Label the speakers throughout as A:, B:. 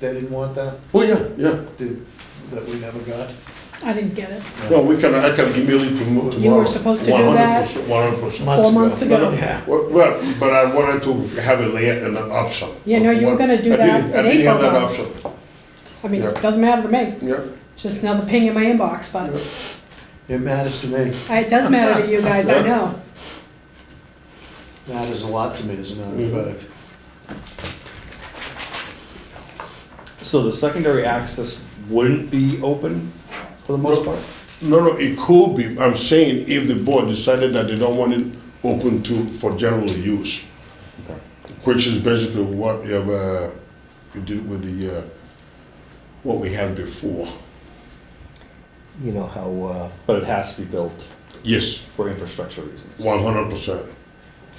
A: They didn't want that,
B: Oh, yeah, yeah.
A: did, that we never got?
C: I didn't get it.
B: No, we can, I can immediately to move
C: You
B: tomorrow.
C: were supposed to do that
B: 100%, 100%.
A: Months
C: four
A: ago.
C: months
B: No,
C: ago.
A: Yeah.
B: no, Well, well, but I wanted to have it lay an option.
C: Yeah, no, you were gonna do
B: I
C: that
B: didn't- I
C: in
B: didn't have
C: April,
B: that
C: though.
B: option,
C: I mean, it
B: Yeah.
C: doesn't matter to me,
B: yeah.
C: just another ping in my inbox, but
A: It matters to me,
C: it does matter to you guys, I know.
A: matters a lot to me, as a matter
C: Mm-hmm.
A: of fact.
D: So the secondary access wouldn't be open for the most part?
B: No, no, it could be, I'm saying if the board decided that they don't want it open to, for general use,
D: Okay.
B: which is basically what, uh, we did with the, uh, what we had before.
E: You know how, uh,
D: But it has to be built
B: Yes,
D: for infrastructure reasons.
B: one hundred percent.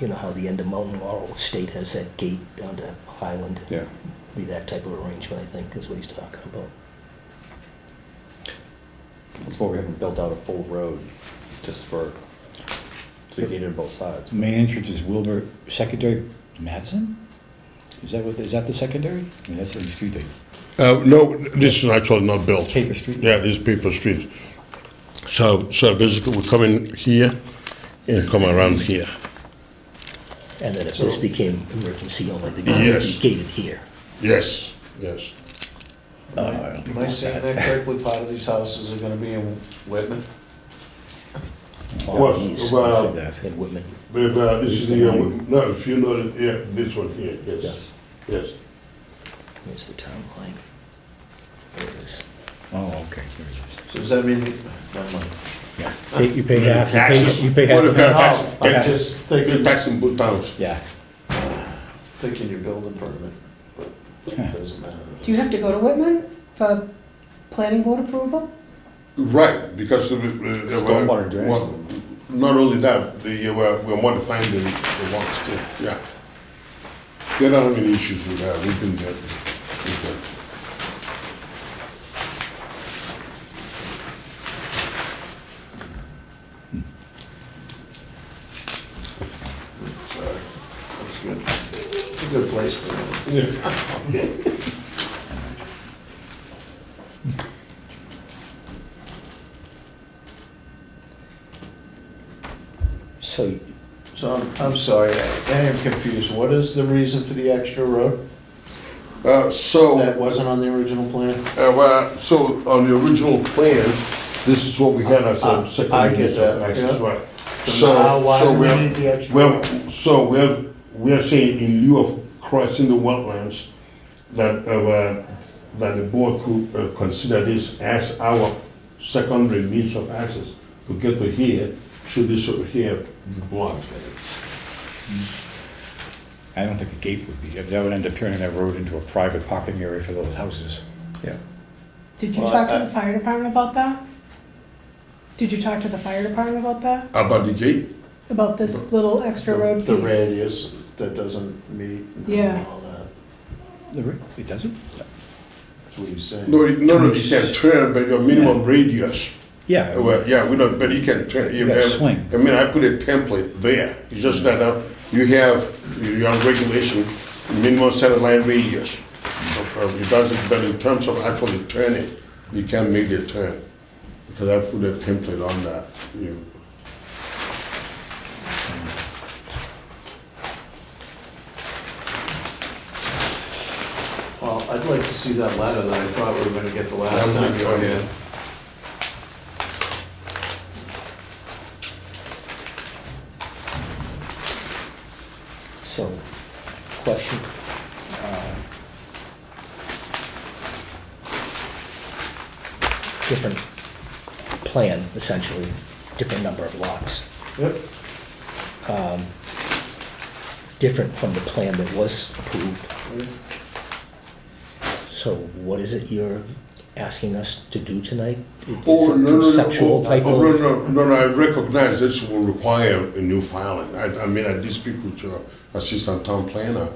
E: you know how the end of Mountain Laurel State has that gate down to Highland?
D: Yeah.
E: Be that type of arrangement, I think, is what he's talking about.
D: That's why we haven't built out a full road, just for, to be gated on both sides.
F: Main entrance is Wilbur, secondary Madison? Is that what, is that the secondary? I mean, that's the street they,
B: Uh, no, this is actually not built.
F: paper street?
B: Yeah, this is paper street. So, so basically, we come in here and come around here.
E: And then if this became emergency only, the gate would
B: Yes.
E: be gated here.
B: Yes, yes.
A: Am I saying that correctly, part of these houses are gonna be in Whitman?
B: Well,
E: These-
B: well-
E: And Whitman,
B: But, uh, this is the, uh, no, if you know, that, yeah, this one here, yes,
D: Yes.
B: yes.
E: where's the town line? There it is.
F: Oh, okay, there it is.
A: So does that mean, never mind.
F: Yeah. Pay- You pay half, you
B: Taxes.
F: pay, you pay half.
B: What
F: of
B: about
F: it.
B: taxes?
A: No, I'm just
B: You're
A: thinking,
B: taxing both towns.
F: Yeah,
A: thinking your building permit, but it doesn't matter.
C: Do you have to go to Whitman for planning board approval?
B: Right, because the, uh, uh,
D: Stormwater
B: well,
D: drains.
B: well, Not only that, the, uh, we're, we're modifying the, the ones too, yeah. They don't have any issues with that, we've been there. We've been there.
A: That's good. It's a good place for it.
E: So
A: So I'm, I'm sorry, I I am confused. What is the reason for the extra road
B: Uh, so.
A: that wasn't on the original plan?
B: Uh, well, so on the original plan, this is what we had as
A: Uh,
B: a
A: I
B: second
A: get
B: use of
A: that,
B: access,
A: yeah.
B: right?
A: So now why do
B: so
A: we
B: we're-
A: need the extra
B: Well,
A: road?
B: so we're, we're saying in lieu of crossing the wetlands, that, uh, uh, that the board could uh, consider this as our secondary means of access to get to here, should this over here be blocked.
F: I don't think a gate would be, that would end up turning that road into a private parking area for those houses.
D: Yeah.
C: Did you
A: Well,
C: talk to
A: I-
C: the fire department about that? Did you talk to the fire department about that?
B: About the gate?
C: About this little extra
A: The-
C: road
A: The
C: piece?
A: radius that doesn't meet
C: Yeah.
A: and all that.
F: The re- It doesn't?
A: That's what he's saying.
B: No, it- no, no, you can turn, but your minimum radius.
F: Yeah.
B: Uh, Well, yeah, we don't, but you can, tra- you
F: You gotta
B: have,
F: swing.
B: I mean, I put a template there, it's just that, uh, you have, you have regulation, minimum satellite radius. Uh, uh, It doesn't, but in terms of actually turning, you can't make the turn, because I put a template on that, you.
A: Well, I'd like to see that letter that I thought we were gonna get the last
B: I'm
A: time
B: with
A: you
B: you.
A: were here.
E: So, question. uh, Different plan, essentially, different number of lots,
A: Yep,
E: different from the plan that was approved. So what is it you're asking us to do tonight? Is
B: Oh, no, no,
E: it
B: no,
E: Conceptual
B: oh,
E: type
B: oh,
E: of,
B: No, no, no, no, I recognize this will require a new filing. I, I mean, I did speak with your assistant town planner,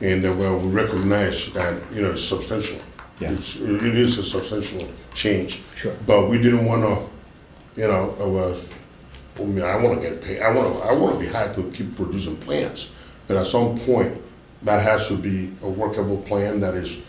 B: and uh, well, we recognize that, you know, it's substantial.
F: Yeah.
B: It's, it is a substantial change.
E: Sure.
B: But we didn't wanna, you know, uh, well, I mean, I wanna get paid, I wanna, I wanna be hired to keep producing plans. But at some point, that has to be a workable plan that is